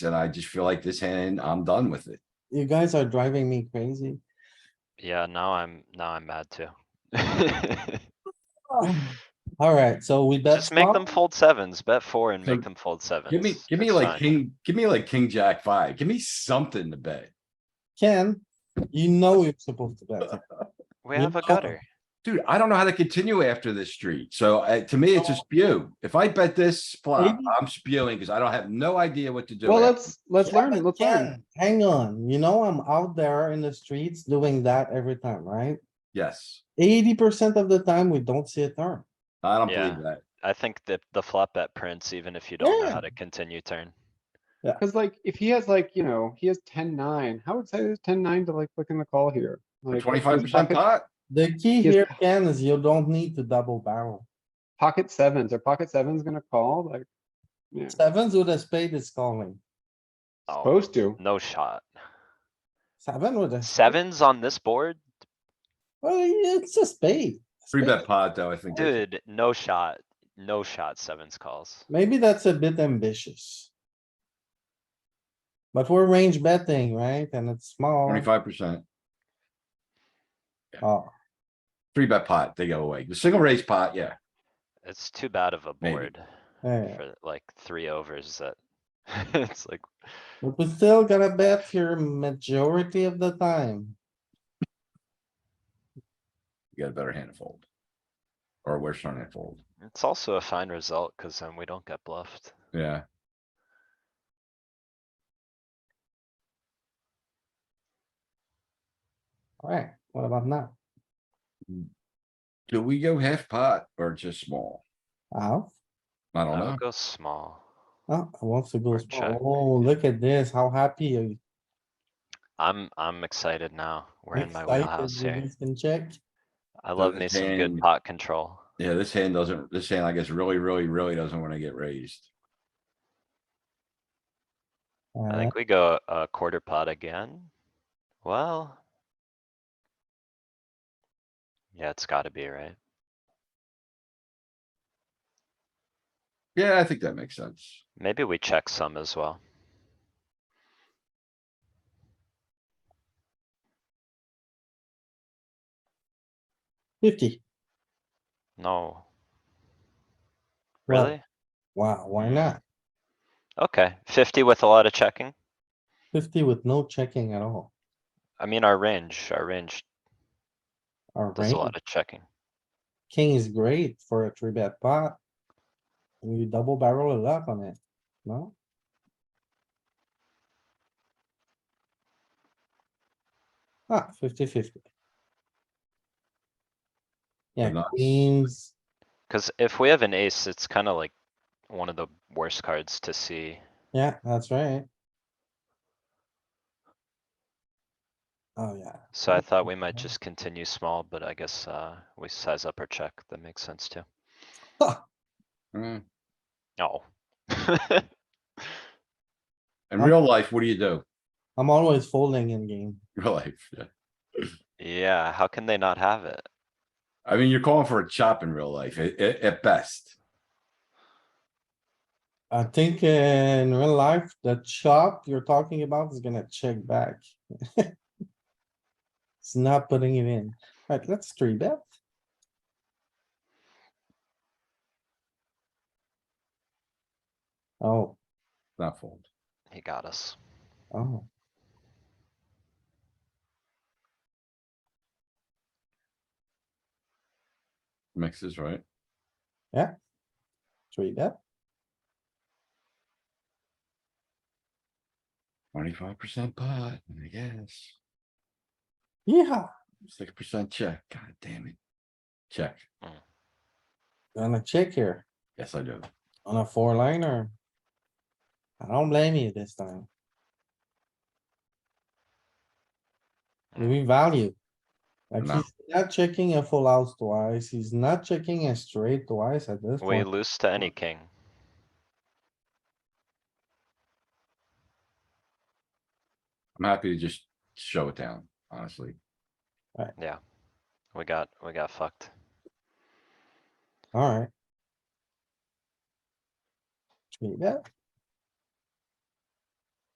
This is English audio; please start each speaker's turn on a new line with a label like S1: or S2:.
S1: and I just feel like this hand, I'm done with it.
S2: You guys are driving me crazy.
S3: Yeah, now I'm, now I'm mad too.
S2: Alright, so we bet
S3: Just make
S2: small.
S3: them fold sevens, bet four and
S1: So
S3: make them fold sevens.
S1: Give me, give me
S3: That's
S1: like
S3: fine.
S1: king, give me like king, jack five. Give me something to bet.
S2: Ken, you know you're supposed to bet.
S3: We
S2: you
S3: have a
S2: know-
S3: gutter.
S1: Dude, I don't know how to continue after this street. So uh, to me, it's
S4: Oh.
S1: a spew. If I bet this flop,
S2: Maybe-
S1: I'm spewing because I don't have no idea what to do.
S4: Well,
S1: after.
S4: let's, let's
S2: Yeah,
S4: learn it,
S2: but
S4: let's learn.
S2: Ken, Hang on, you know I'm out there in the streets doing that every time, right?
S1: Yes,
S2: Eighty percent of the time, we don't see a turn.
S1: I don't
S3: Yeah.
S1: believe that.
S3: I think that the flop bet prints, even if you don't know how to continue turn.
S4: Cause like, if he has like, you know, he has ten nine, how excited is ten nine to like look in the call here? Like,
S1: Twenty-five
S4: his
S1: percent
S4: pocket-
S1: pot?
S2: The key
S4: Yes.
S2: here, Ken, is you don't need to double barrel.
S4: Pocket sevens, or pocket sevens gonna call, like, yeah,
S2: Sevens with a spade is calling.
S3: Oh,
S4: supposed to.
S3: no shot.
S2: Seven with a,
S3: Sevens on this board?
S2: well, it's a spade.
S1: Three
S2: Spade.
S1: bet pot though, I think. that's-
S3: Dude, no shot, no shot sevens calls.
S2: Maybe that's a bit ambitious. But we're range betting, right? And it's small.
S1: Twenty-five percent,
S2: Oh,
S1: three bet pot, they go away. The single raise pot, yeah.
S3: It's too bad of a
S1: Maybe.
S3: board
S2: yeah,
S3: for like three overs that. It's like,
S2: but we still gotta bet here majority of the time.
S1: You got a better hand to fold. Or a worse hand to fold.
S3: it's also a fine result, cause then we don't get bluffed.
S1: Yeah,
S2: Alright, what about now?
S1: do we go half pot or just small?
S2: Ow,
S1: I don't
S3: I
S1: know.
S3: would go small.
S2: oh, I want to go,
S3: Or
S2: small.
S3: check.
S2: oh, look at this, how happy are you?
S3: I'm, I'm excited now. We're in my
S2: Excited
S3: wheelhouse
S2: you
S3: here.
S2: guys Can check,
S3: I love
S1: the
S3: me some
S1: hand.
S3: good pot control.
S1: Yeah, this hand doesn't, this hand, I guess, really, really, really doesn't wanna get raised.
S3: I
S2: uh,
S3: think we go a quarter pot again. Well. Yeah, it's gotta be, right?
S1: Yeah, I think that makes sense.
S3: Maybe we check some as well.
S2: fifty,
S3: No.
S2: Well-
S3: Really?
S2: wow, why not?
S3: Okay, fifty with a lot of checking.
S2: Fifty with no checking at all.
S3: I mean, our range, our range
S2: Our
S3: does a
S2: range,
S3: lot of checking.
S2: king is great for a three bet pot. You double barrel it up on it, no? Ah, fifty fifty. Yeah,
S1: Nice.
S2: queens,
S3: Cuz if we have an ace, it's kinda like one of the worst cards to see.
S2: yeah, that's right. Oh, yeah.
S3: So I thought we might
S2: Okay.
S3: just continue small, but I guess, uh, we size up our check. That makes sense too.
S1: Hmm.
S3: Oh.
S1: In
S2: Huh?
S1: real life, what do you do?
S2: I'm always folding in game.
S1: Real life, yeah.
S3: Yeah, how can they not have it?
S1: I mean, you're calling for a chop in real life, at, at best.
S2: I think uh, in real life, the chop you're talking about is gonna check back. It's not putting it in. Right, let's three bet. Oh,
S1: Not fold.
S3: He got us.
S2: oh.
S1: Mixes, right?
S2: Three bet.
S1: Twenty-five percent pot, I guess.
S2: Yeah,
S1: Six percent check. God damn it. Check.
S2: gonna check here
S1: Yes, I do.
S2: on a four liner. I don't blame you this time. We value. Like
S1: No.
S2: he's not checking a full house twice. He's not checking a straight twice at this
S3: We
S2: point.
S3: lose to any king.
S1: I'm happy to just show it down, honestly.
S3: We got, we got fucked.
S2: Alright. Three bet.